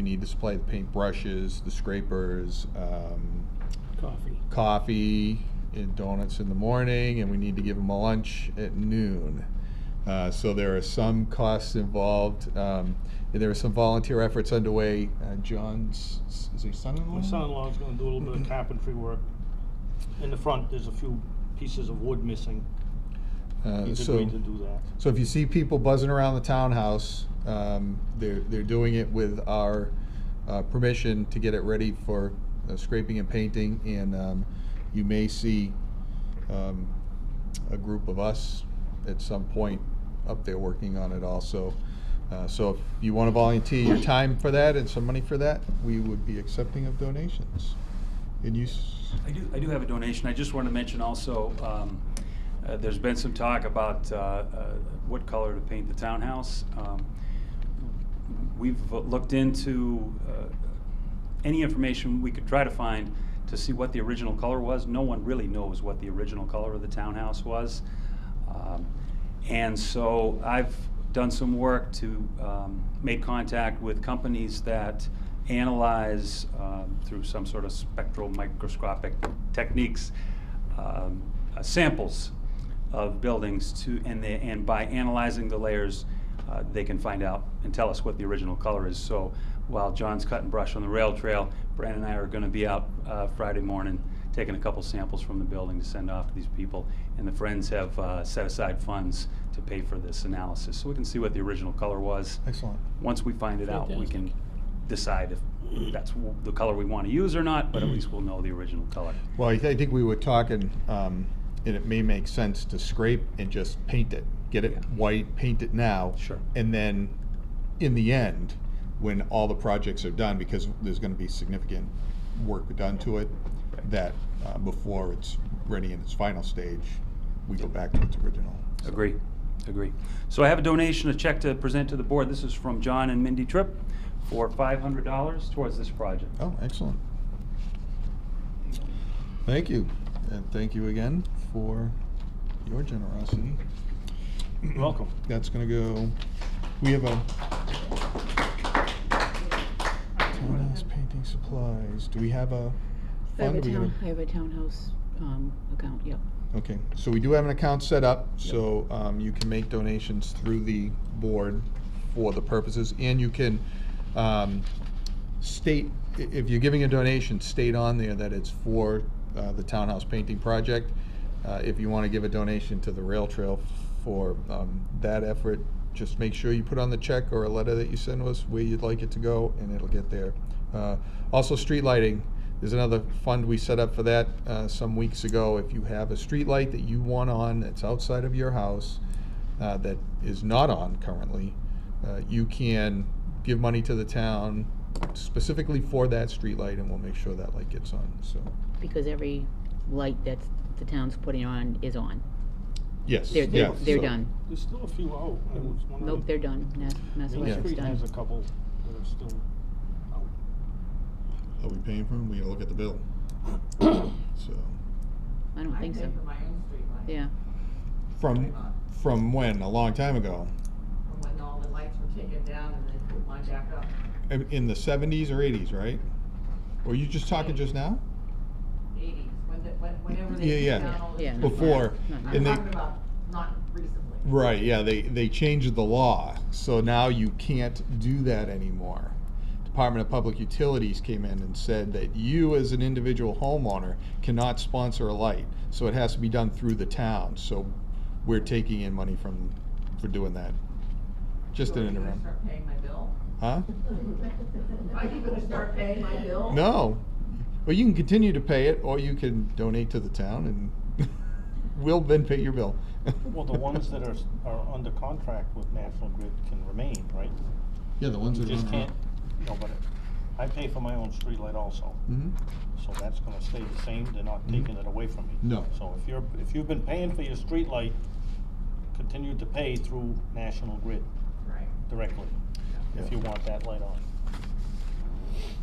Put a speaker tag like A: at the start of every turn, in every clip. A: You need to supply the paint brushes, the scrapers, um,
B: coffee.
A: coffee and donuts in the morning, and we need to give them a lunch at noon. Uh, so there are some costs involved. Um, and there are some volunteer efforts underway. Uh, John's s- is he son-in-law?
B: My son-in-law's gonna do a little bit of carpentry work. In the front, there's a few pieces of wood missing.
A: Uh,
B: He's
A: so,
B: agreed to do that.
A: so if you see people buzzing around the townhouse, um, they're they're doing it with our uh, permission to get it ready for uh, scraping and painting, and um, you may see um, a group of us at some point up there working on it also. Uh, so if you want to volunteer your time for that and some money for that, we would be accepting of donations. And you, s-
C: I do, I do have a donation. I just want to mention also, um, uh, there's been some talk about, uh, uh, what color to paint the townhouse. Um, We've looked into, uh, any information we could try to find to see what the original color was. No one really knows what the original color of the townhouse was. Um, And so I've done some work to um, make contact with companies that analyze um, through some sort of spectral microscopic techniques, um, uh, samples of buildings to, and they, and by analyzing the layers, uh, they can find out and tell us what the original color is. So while John's cutting brush on the rail trail, Brandon and I are gonna be out, uh, Friday morning, taking a couple samples from the building to send off to these people. And the Friends have, uh, set aside funds to pay for this analysis, so we can see what the original color was.
A: excellent.
C: Once we find it out, we can decide if that's w- the color we wanna use or not, but at least we'll know the original color.
A: Well, I thi- I think we were talking, um, and it may make sense to scrape and just paint it. Get it
C: Yeah.
A: white, paint it now.
C: Sure.
A: And then, in the end, when all the projects are done, because there's gonna be significant work done to it,
C: Right.
A: that, uh, before it's ready in its final stage, we go back to its original. So-
C: Agree, agree. So I have a donation, a check to present to the board. This is from John and Mindy Tripp for five hundred dollars towards this project.
A: Oh, excellent. Thank you, and thank you again for your generosity.
B: Welcome.
A: That's gonna go, we have a. Townhouse painting supplies, do we have a
D: I have
A: fund?
D: a
A: Are we gonna-
D: town, I have a townhouse, um, account, yep.
A: Okay, so we do have an account set up, so, um, you can make donations through the board for the purposes, and you can, um, state, i- if you're giving a donation, state on there that it's for, uh, the townhouse painting project. Uh, if you wanna give a donation to the rail trail for, um, that effort, just make sure you put on the check or a letter that you send us where you'd like it to go, and it'll get there. Uh, also, street lighting, there's another fund we set up for that, uh, some weeks ago. If you have a street light that you want on that's outside of your house, uh, that is not on currently, uh, you can give money to the town specifically for that streetlight, and we'll make sure that light gets on, so,
D: Because every light that's the town's putting on is on.
A: yes,
D: They're, they're,
A: yeah.
D: they're
A: so-
D: done.
B: There's still a few out. I was wondering-
D: Nope, they're done. Mass, Mass
B: Main
D: Electric's
B: Street has a
D: done.
B: couple that are still out.
A: Are we paying for them? We gotta look at the bill. So,
D: I don't think
E: I
D: so.
E: pay for my own streetlight.
D: Yeah,
A: from, from when? A long time ago?
E: From when all the lights were taken down and they put mine back up.
A: In in the seventies or eighties, right? Were you just talking just now?
E: Eighties, when the, when, whenever
A: Yeah,
E: they
A: yeah.
E: took down all the.
D: Yeah.
E: streetlights.
A: Before,
D: Not now.
E: I'm
A: and they,
E: talking about not recently.
A: Right, yeah, they, they changed the law, so now you can't do that anymore. Department of Public Utilities came in and said that you as an individual homeowner cannot sponsor a light, so it has to be done through the town, so we're taking in money from, for doing that. Just
E: So
A: an
E: are you gonna
A: interim,
E: Start paying my bill?
A: huh?
E: Are you gonna start paying my bill?
A: No, well, you can continue to pay it, or you can donate to the town and we'll then pay your bill.
B: Well, the ones that are, s- are under contract with National Grid can remain, right?
A: Yeah, the ones
B: You just can't, no, but I pay for my own streetlight also,
A: hmm
B: so that's gonna stay the same. They're not
A: Mhm.
B: taking it away from me.
A: No.
B: So if you're, if you've been paying for your streetlight, continue to pay through National Grid
E: Right.
B: directly, if
A: Yeah.
B: you want that light on.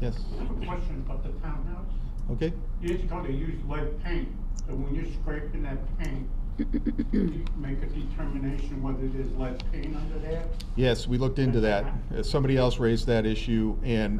A: yes,
F: Question about the townhouse.
A: okay.
F: Years ago, they used lead paint, and when you're scraping that paint, you make a determination whether there's lead paint under there.
A: Yes, we looked into that. Uh, Somebody else raised that issue, and